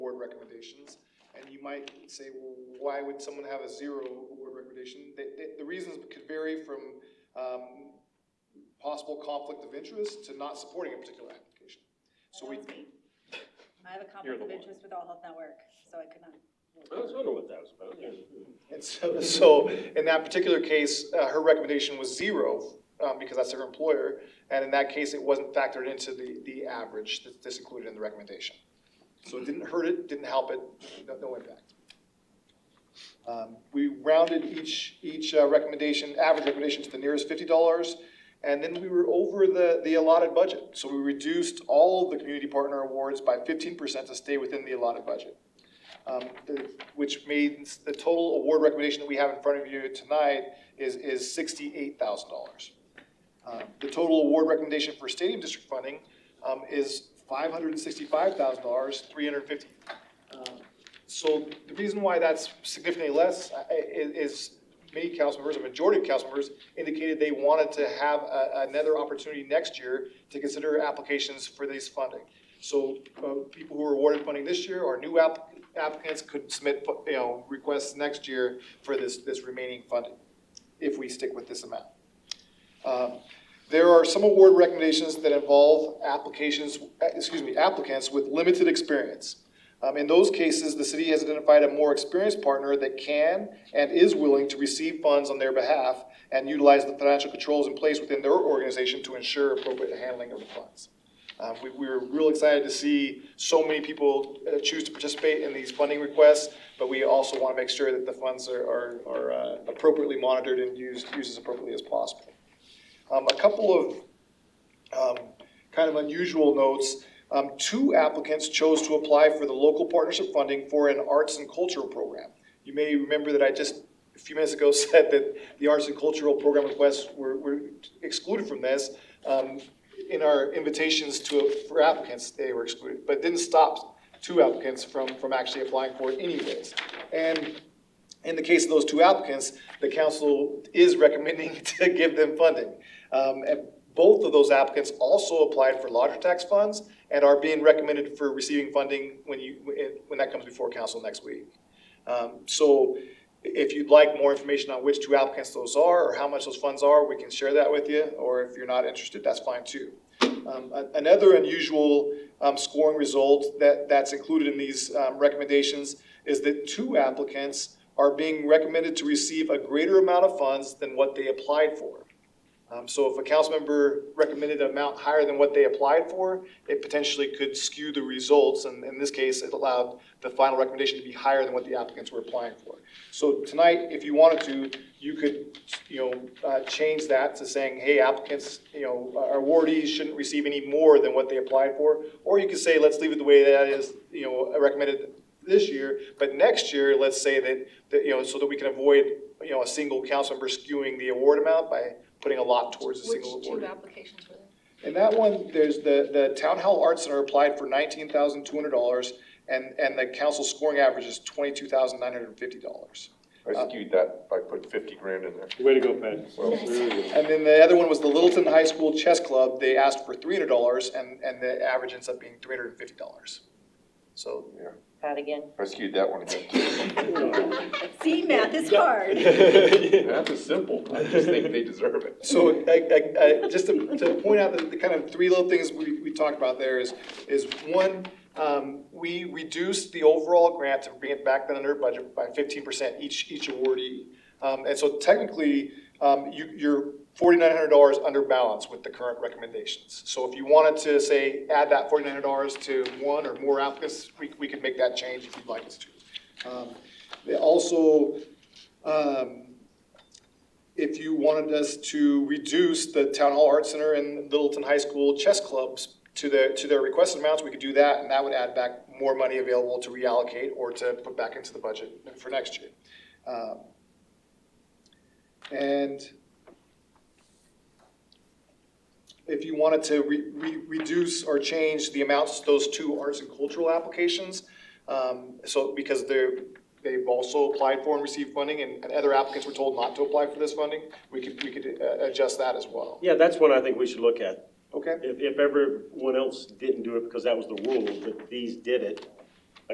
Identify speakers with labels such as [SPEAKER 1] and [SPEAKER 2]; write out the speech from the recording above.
[SPEAKER 1] recommendations. And you might say, well, why would someone have a zero award recommendation? The, the, the reasons could vary from, um, possible conflict of interest to not supporting a particular application. So we,
[SPEAKER 2] That was me. I have a
[SPEAKER 3] You're
[SPEAKER 2] conflict
[SPEAKER 3] the
[SPEAKER 2] of
[SPEAKER 3] one.
[SPEAKER 2] interest with All Health Network, so I could not.
[SPEAKER 3] I was wondering what that was about.
[SPEAKER 1] and so, so in that particular case, uh, her recommendation was zero, um, because that's her employer. And in that case, it wasn't factored into the, the average that's, that's included in the recommendation. So it didn't hurt it, didn't help it, no, no impact. Um, We rounded each, each uh, recommendation, average recommendation to the nearest fifty dollars, and then we were over the, the allotted budget. So we reduced all of the community partner awards by fifteen percent to stay within the allotted budget. Um, the- Which means the total award recommendation that we have in front of you tonight is, is sixty-eight thousand dollars. Uh, The total award recommendation for stadium district funding um, is five hundred and sixty-five thousand dollars, three hundred and fifty. Uh, So the reason why that's significantly less uh, i- is many council members, a majority of council members indicated they wanted to have a- another opportunity next year to consider applications for these funding. So uh, people who were awarded funding this year or new app- applicants could submit, you know, requests next year for this, this remaining funding, if we stick with this amount. Um, There are some award recommendations that involve applications, eh, excuse me, applicants with limited experience. Um, In those cases, the city has identified a more experienced partner that can and is willing to receive funds on their behalf and utilize the financial controls in place within their organization to ensure appropriate handling of the funds. Uh, we, we were real excited to see so many people uh, choose to participate in these funding requests, but we also want to make sure that the funds are, are, are uh, appropriately monitored and used, used as appropriately as possible. Um, a couple of, um, kind of unusual notes. Um, two applicants chose to apply for the local partnership funding for an arts and cultural program. You may remember that I just, a few minutes ago, said that the arts and cultural program requests were, were excluded from this. Um, in our invitations to, for applicants, they were excluded, but didn't stop two applicants from, from actually applying for it anyways. And in the case of those two applicants, the council is recommending to give them funding. Um, and both of those applicants also applied for lodger tax funds and are being recommended for receiving funding when you, when that comes before council next week. Um, so if you'd like more information on which two applicants those are or how much those funds are, we can share that with you. Or if you're not interested, that's fine too. Um, a- Another unusual um, scoring result that, that's included in these um, recommendations is that two applicants are being recommended to receive a greater amount of funds than what they applied for. Um, So if a council member recommended an amount higher than what they applied for, it potentially could skew the results. And in this case, it allowed the final recommendation to be higher than what the applicants were applying for. So tonight, if you wanted to, you could, you know, uh, change that to saying, hey, applicants, you know, uh, awardees shouldn't receive any more than what they applied for. Or you could say, let's leave it the way that is, you know, recommended this year, but next year, let's say that, that, you know, so that we can avoid, you know, a single council member skewing the award amount by putting a lot towards a
[SPEAKER 4] Which
[SPEAKER 1] single
[SPEAKER 4] two
[SPEAKER 1] award.
[SPEAKER 4] applications were there?
[SPEAKER 1] And that one, there's the, the Town Hall Arts Center applied for nineteen thousand two hundred dollars, and, and the council scoring average is twenty-two thousand nine hundred and fifty dollars.
[SPEAKER 5] I skewed that by putting fifty grand in there.
[SPEAKER 3] Way to go, Pat.
[SPEAKER 5] Well,
[SPEAKER 1] And then the other one was the Littleton High School Chess Club, they asked for three hundred dollars, and, and the average ends up being three hundred and fifty dollars. So,
[SPEAKER 6] Pat again.
[SPEAKER 5] I skewed that one again too.
[SPEAKER 2] See, math is hard.
[SPEAKER 5] Math is simple. I just think they deserve it.
[SPEAKER 1] So I, I, I, just to, to point out the, the kind of three little things we, we talked about there is, is one, um, we reduced the overall grant to bring it back then under budget by fifteen percent each, each awardee. Um, and so technically, um, you, you're forty-nine hundred dollars under balance with the current recommendations. So if you wanted to say, add that forty-nine hundred dollars to one or more applicants, we, we could make that change if you'd like us to. Um, they also, um, if you wanted us to reduce the Town Hall Art Center and Littleton High School chess clubs to their, to their requested amounts, we could do that, and that would add back more money available to reallocate or to put back into the budget for next year. Um, And if you wanted to re, re, reduce or change the amounts to those two arts and cultural applications, um, so, because they're, they've also applied for and received funding, and, and other applicants were told not to apply for this funding, we could, we could uh, adjust that as well,
[SPEAKER 3] Yeah, that's one I think we should look at.
[SPEAKER 1] okay?
[SPEAKER 3] If, if everyone else didn't do it because that was the rule, but these did it,